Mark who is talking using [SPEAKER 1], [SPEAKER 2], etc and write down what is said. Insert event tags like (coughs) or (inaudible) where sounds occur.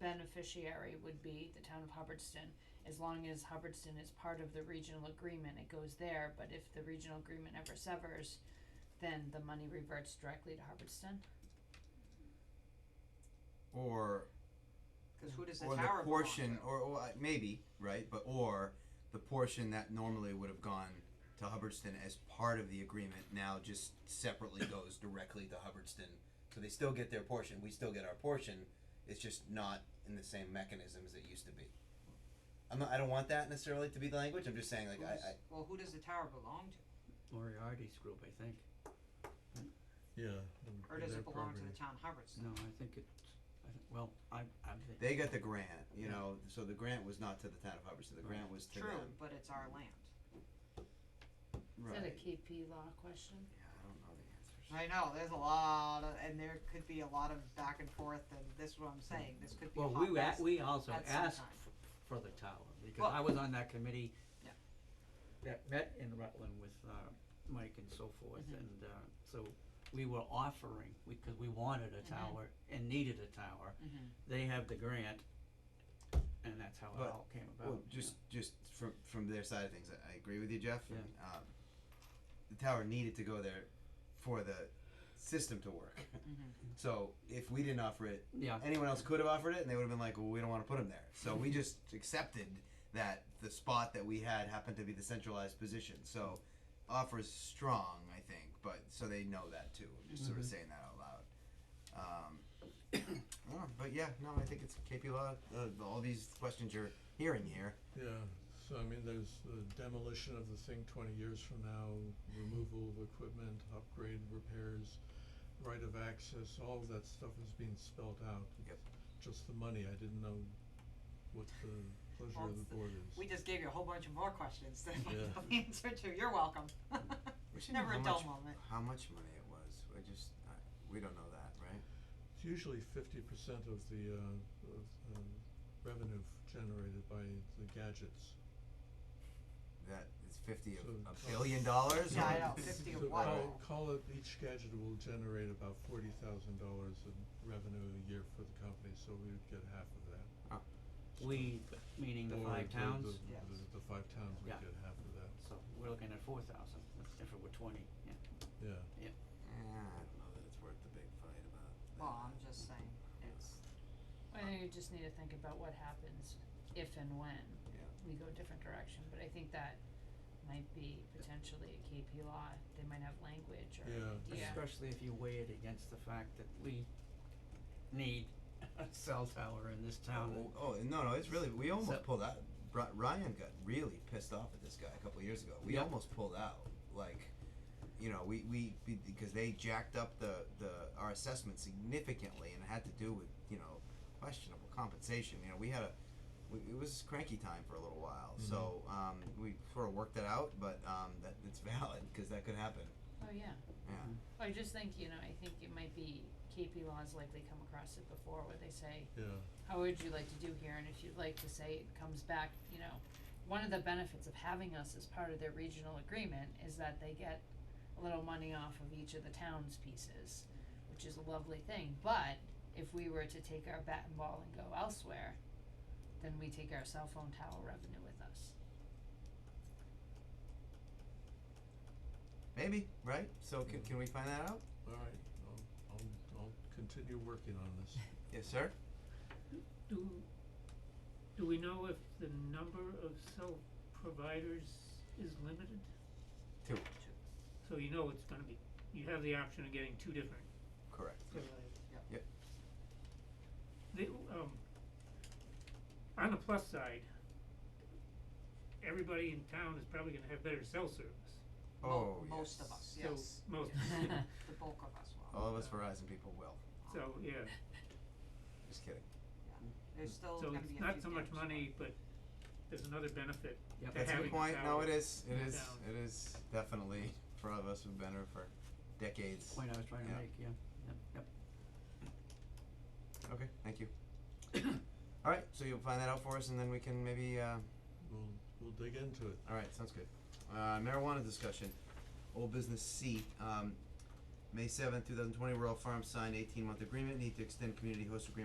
[SPEAKER 1] beneficiary would be the town of Hubbardston, as long as Hubbardston is part of the regional agreement, it goes there, but if the regional agreement ever severs, then the money reverts directly to Hubbardston.
[SPEAKER 2] or
[SPEAKER 3] Cause who does the
[SPEAKER 2] or the
[SPEAKER 3] tower belong
[SPEAKER 2] portion
[SPEAKER 3] to?
[SPEAKER 2] or, or uh, maybe right, but or the portion that normally would have gone to Hubbardston as part of the agreement now just
[SPEAKER 3] (coughs)
[SPEAKER 2] separately goes directly to Hubbardston. So they still get their portion. We still get our portion. It's just not in the same mechanism as it used to be. I'm not, I don't want that necessarily to be the language. I'm just saying like
[SPEAKER 3] Who
[SPEAKER 2] I, I
[SPEAKER 3] does- Well, who does the tower belong to?
[SPEAKER 4] Moriarty's group, I think.
[SPEAKER 5] Yeah.
[SPEAKER 3] Or does it belong to the town Hubbardston?
[SPEAKER 4] No, I think it, I think, well, I, I think.
[SPEAKER 2] they got the grant. You
[SPEAKER 4] Yeah.
[SPEAKER 2] know, so the grant was not to the town of Hubbardston. The grant was to
[SPEAKER 3] True,
[SPEAKER 2] them.
[SPEAKER 3] but it's our land.
[SPEAKER 2] Right.
[SPEAKER 1] Is that a KP law question?
[SPEAKER 2] yeah, I don't know the answers.
[SPEAKER 3] I know, there's a lot of, and there could be a lot of back and forth, and this is what I'm saying, this could be a
[SPEAKER 4] Well,
[SPEAKER 3] hot
[SPEAKER 4] we, a-
[SPEAKER 3] mess.
[SPEAKER 4] we also
[SPEAKER 3] at some
[SPEAKER 4] asked
[SPEAKER 3] time.
[SPEAKER 4] f- for the tower, because
[SPEAKER 3] Well-
[SPEAKER 4] I was on that committee
[SPEAKER 3] Yeah.
[SPEAKER 4] that met in Rutland with, uh, Mike and so forth,
[SPEAKER 3] Mhm.
[SPEAKER 4] and, uh, so we were offering, we, cause we wanted a
[SPEAKER 1] Mhm.
[SPEAKER 3] Mm-hmm.
[SPEAKER 4] tower and needed a tower.
[SPEAKER 1] Mhm.
[SPEAKER 6] Mm-hmm.
[SPEAKER 4] They have the grant, and that's how it
[SPEAKER 2] But-
[SPEAKER 4] all came about.
[SPEAKER 2] Well, just just from from their side of things, I, I agree with you, Jeff.
[SPEAKER 4] Yeah.
[SPEAKER 2] And, um, the tower needed to go there for the system to work. (laughs) so if we didn't offer it,
[SPEAKER 4] Yeah,
[SPEAKER 2] anyone else could have offered it, and they would have been like, "Well, we don't want to put him there." So we just accepted that the spot that we had happened to be the centralized position. So offer is strong, I think, but so they know that too. I'm just sort of
[SPEAKER 4] Mhm.
[SPEAKER 2] saying that out loud. Um, (coughs) I don't know, but yeah, no, I think it's KP law. Uh, all these questions you're hearing here.
[SPEAKER 5] Yeah, so I mean, there's the demolition of the thing twenty years from now, removal of equipment, upgrade, repairs, right of access, all of that stuff is being spelled out.
[SPEAKER 2] Yep.
[SPEAKER 5] Just the money, I didn't know what the pleasure of
[SPEAKER 3] Well, it's
[SPEAKER 5] the
[SPEAKER 3] the-
[SPEAKER 5] board
[SPEAKER 3] We
[SPEAKER 5] is.
[SPEAKER 3] just gave you a whole bunch of more questions than I
[SPEAKER 5] Yeah.
[SPEAKER 3] know (laughs) the answer to, you're welcome. (laughs)
[SPEAKER 2] We should
[SPEAKER 3] Never
[SPEAKER 2] know
[SPEAKER 3] a
[SPEAKER 2] how
[SPEAKER 3] dull
[SPEAKER 2] much,
[SPEAKER 3] moment.
[SPEAKER 2] How much money it was? I just I, we don't know that, right?
[SPEAKER 5] It's usually fifty percent of the uh of um revenue f- generated by the gadgets.
[SPEAKER 2] That is fifty of
[SPEAKER 5] So-
[SPEAKER 2] a billion dollars.
[SPEAKER 3] Yeah, I
[SPEAKER 2] or-
[SPEAKER 3] know, fifty of
[SPEAKER 5] (laughs) So
[SPEAKER 3] what?
[SPEAKER 5] call call it each gadget will generate about forty thousand dollars in revenue a year for the company, so we would get half of that.
[SPEAKER 4] we, meaning the
[SPEAKER 5] Or
[SPEAKER 4] five towns,
[SPEAKER 5] The,
[SPEAKER 3] Yes.
[SPEAKER 5] the, the five towns would
[SPEAKER 4] Yeah.
[SPEAKER 5] get half of that,
[SPEAKER 4] so we're looking at four thousand, if it were twenty, yeah.
[SPEAKER 5] yeah.
[SPEAKER 2] Eh, I don't know that it's worth the big fight about. that.
[SPEAKER 3] Well, I'm just saying, it's,
[SPEAKER 1] I think you just need to think about what happens if and when
[SPEAKER 2] Yeah.
[SPEAKER 1] we go a different direction, but I think that might be potentially a KP law, they might have language or
[SPEAKER 5] Yeah.
[SPEAKER 1] an idea.
[SPEAKER 4] Especially if you weigh it against the fact that we need a cell tower in this town.
[SPEAKER 2] Oh, oh, no, no, it's really we almost
[SPEAKER 4] So-
[SPEAKER 2] pulled out. Bri- Ryan got really pissed off at this guy a couple years ago. We
[SPEAKER 4] Yeah.
[SPEAKER 2] almost pulled out, like, you know, we we we- because they jacked up the the our assessment significantly, and it had to do with you know questionable compensation. You know, we had a we, it was cranky time for a little while, so um, we sort of worked it out, but um, that it's (laughs) valid because that could happen.
[SPEAKER 1] Oh, yeah.
[SPEAKER 2] Yeah.
[SPEAKER 1] I just think, you know, I think it might be KP laws likely come across it before where they say,
[SPEAKER 5] Yeah,
[SPEAKER 1] how would you like to do here? And if you'd like to say it comes back, you know, one of the benefits of having us as part of their regional agreement is that they get a little money off of each of the town's pieces, which is a lovely thing. But if we were to take our bat and ball and go elsewhere, then we take our cell phone tower revenue with us.
[SPEAKER 2] Maybe right. So can can we find that out?
[SPEAKER 5] alright, I'll, I'll, I'll continue working on
[SPEAKER 4] (laughs)
[SPEAKER 5] this.
[SPEAKER 2] Yes, sir.
[SPEAKER 6] Do, do we know if the number of cell providers is limited?
[SPEAKER 2] Two.
[SPEAKER 6] So you know it's gonna be, you have the option of getting two different
[SPEAKER 2] Correct.
[SPEAKER 6] providers.
[SPEAKER 3] Yep.
[SPEAKER 2] Yep.
[SPEAKER 6] The, um, on the plus side, everybody in town is probably gonna have better cell service,
[SPEAKER 2] Oh,
[SPEAKER 3] mo- most of
[SPEAKER 2] yes.
[SPEAKER 3] us,
[SPEAKER 6] so
[SPEAKER 3] yes,
[SPEAKER 6] most,
[SPEAKER 1] (laughs)
[SPEAKER 3] the bulk of us will. Um,
[SPEAKER 2] All of us Verizon people will.
[SPEAKER 6] so, yeah,
[SPEAKER 2] Just kidding.
[SPEAKER 3] There's still
[SPEAKER 6] so
[SPEAKER 3] gonna be a
[SPEAKER 6] it's
[SPEAKER 3] few
[SPEAKER 6] not so much
[SPEAKER 3] gaps, but-
[SPEAKER 6] money, but there's another benefit
[SPEAKER 4] Yep.
[SPEAKER 6] to
[SPEAKER 2] That's a
[SPEAKER 6] having
[SPEAKER 2] good
[SPEAKER 6] a
[SPEAKER 2] point. No,
[SPEAKER 6] tower.
[SPEAKER 2] it is. It
[SPEAKER 6] Yeah.
[SPEAKER 2] is. It is definitely for all of us who've been here for decades.
[SPEAKER 4] Point I was trying to
[SPEAKER 2] Yeah.
[SPEAKER 4] make, yeah, yep, yep.
[SPEAKER 2] Okay, thank you. all right, so you'll find that out for us, and then we can maybe. Uh,
[SPEAKER 5] We'll, we'll dig into it.
[SPEAKER 2] all right, sounds good. Uh, marijuana discussion. Old business C. Um, May seventh, two thousand twenty. Royal Farms signed eighteen month agreement. Need to extend community host agreement.